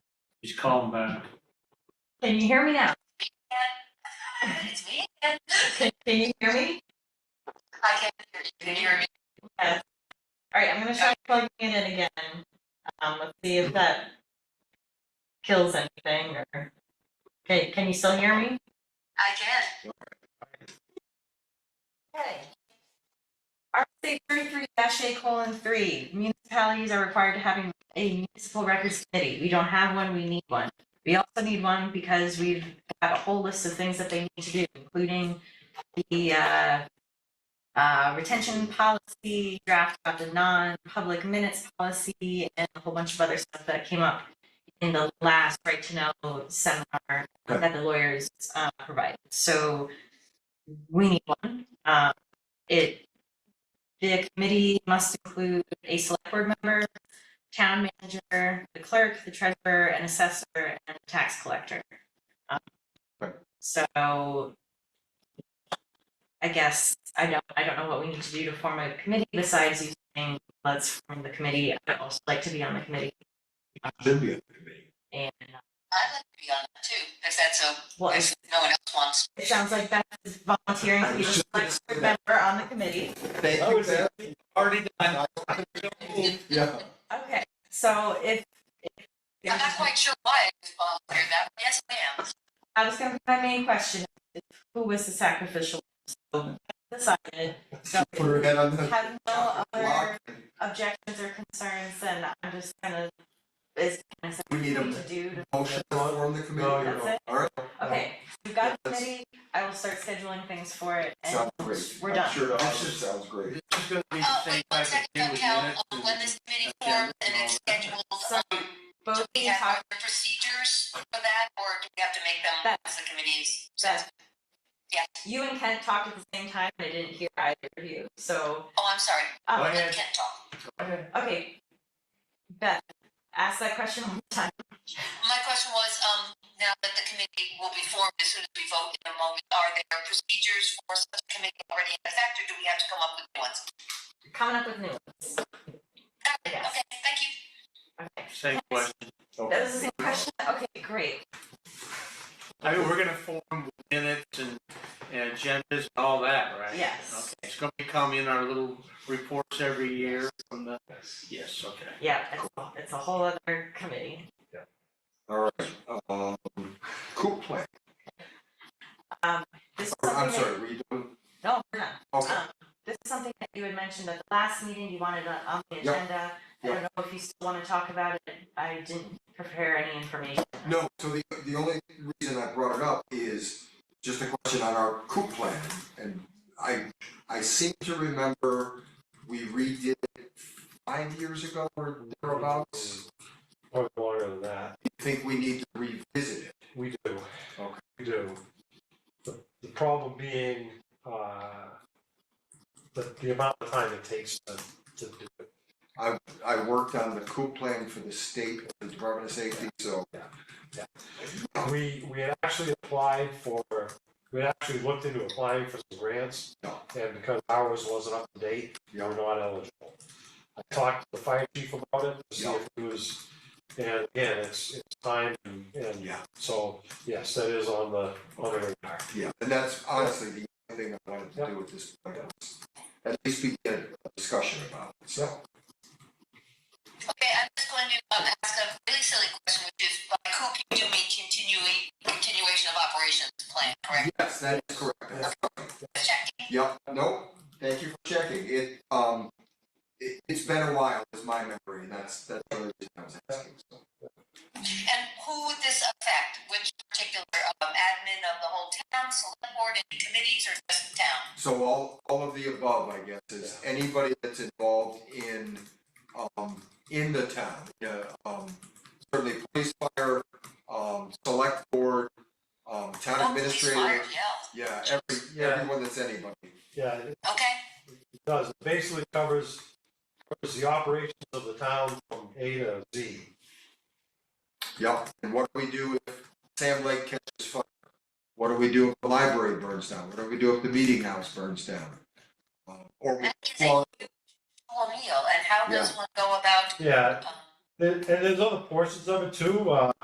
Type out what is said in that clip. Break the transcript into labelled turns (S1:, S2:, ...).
S1: Just call him back.
S2: Can you hear me now?
S3: It's me again.
S2: Can can you hear me?
S3: I can hear you. Can you hear me?
S2: All right, I'm gonna try plugging it in again. Um, let's see if that kills anything or, okay, can you still hear me?
S3: I can.
S2: Okay. RSA thirty-three A colon three, municipalities are required to have a- a municipal records committee. We don't have one, we need one. We also need one because we've got a whole list of things that they need to do, including the, uh, uh, retention policy, draft of the non-public minutes policy, and a whole bunch of other stuff that came up in the last right to know seminar that the lawyers, uh, provided. So we need one. Um, it, the committee must include a select board member, town manager, the clerk, the treasurer, an assessor, and a tax collector. Um,
S4: Right.
S2: So I guess, I don't, I don't know what we need to do to form a committee besides using, let's form the committee. I'd also like to be on the committee
S4: Should be a committee.
S2: and, uh,
S3: I'd like to be on that too, if that's so,
S2: well,
S3: if no one else wants.
S2: it sounds like Beth is volunteering to be the select board member on the committee.
S4: Thank you, Beth. Already done. Yeah.
S2: Okay, so if, if.
S3: I'm not quite sure why I was volunteering that, but yes, I am.
S2: I was gonna, my main question, is who was the sacrificial? lamb? So, Decided, so
S4: Put her head on the
S2: have no other
S4: block.
S2: objections or concerns, then I'm just gonna, is kind of
S4: We need a
S2: something to do to.
S4: motion to form the committee.
S1: No,
S2: you're That's
S4: All right.
S2: Okay, we've got a
S4: Yes.
S2: committee, I will start scheduling things for it and
S4: Sounds great.
S2: we're done.
S4: I'm sure the office sounds great.
S5: This is gonna be the
S3: Oh,
S5: same
S3: wait, one
S5: type of
S3: second,
S5: thing
S3: don't
S5: with
S3: count,
S5: minutes
S3: Um,
S5: and-
S3: when this committee
S5: Yeah,
S3: forms and
S5: yeah.
S3: it's scheduled,
S2: So
S3: um, do
S2: both
S3: we
S2: these
S3: have
S2: are,
S3: the procedures for that, or do we have to make them
S2: That-
S3: as the committees?
S2: that,
S3: Yeah,
S2: you and Kent talked at the same time, I didn't hear either of you, so,
S3: oh, I'm sorry,
S5: Go
S2: um,
S5: ahead.
S3: I can't talk.
S2: okay. Beth, ask that question one more time.
S3: My question was, um, now that the committee will be formed as soon as we vote in a moment, are there procedures for such a committee already in effect, or do we have to come up with new ones?
S2: coming up with new ones. Yes.
S3: Okay, thank you.
S2: Okay.
S5: Same question.
S2: That was the same question. Okay, great.
S5: I mean, we're gonna form minutes and, and agendas and all that, right?
S2: Yes.
S5: Okay, it's gonna become in our little reports every year from the, yes, okay.
S2: Yeah, it's, a- it's a whole other committee.
S4: All right. Um, cool plan.
S2: This is
S4: I'm
S2: something
S4: sorry,
S2: that,
S4: were you doing?
S2: no, we're not.
S4: Okay.
S2: Um, This is something that you had mentioned at the last meeting, you wanted on on the
S4: Yeah.
S2: agenda. I don't know if you still want to talk about it. I didn't prepare any information.
S4: No, so the, the only reason I brought it up is just a question on our coup plan. And I, I seem to remember we redid it five years ago or thereabouts.
S6: Probably longer than that.
S4: Think we need to revisit it.
S6: We do.
S4: Okay.
S6: We do. The, the problem being, uh, the, the amount of time it takes to, to do it.
S4: I worked on the coup plan for the state, the Department of Safety, so
S6: We, we had actually applied for, we had actually looked into applying for some grants.
S4: Yeah.
S6: And because ours wasn't up to date, we were not eligible. I talked to the fire chief about it to see
S4: Yeah.
S6: if he was, and again, it's, it's time and, and
S4: Yeah.
S6: so, yes, that is on the, on the radar.
S4: Yeah, and that's honestly the only thing I wanted to do with this, point was at least we get a discussion about it, so.
S3: Okay, I'm just going to um, ask a really silly question, which is, by coop, you do mean continuing, continuation of operations plan, correct?
S4: Yes, that is correct, that's correct.
S3: Just checking.
S4: Yep, no, thank you for checking, it, um, it, it's been a while, is my memory, and that's, that's the only reason I was asking, so.
S3: And who would this affect? Which particular um, admin of the whole town, select board, any committees, or just the town?
S4: So all, all of the above, I guess, is anybody that's involved in, um, in the town, yeah, um, certainly police, fire, um, select board, um, town
S3: Oh, police,
S4: administrator.
S3: fire, Yeah,
S4: Yeah, every,
S6: Yeah.
S4: everyone that's anybody.
S6: Yeah, it-
S3: okay,
S6: does, it basically covers, covers the operations of the town from A to Z.
S4: Yep, and what do we do if Sam Lake catches fire? What do we do if the library burns down? What do we do if the meeting house burns down? Uh, Or we,
S3: that is a whole meal, and how does one go about,
S6: Yeah,
S3: um,
S6: and, and there's other portions of it too, uh,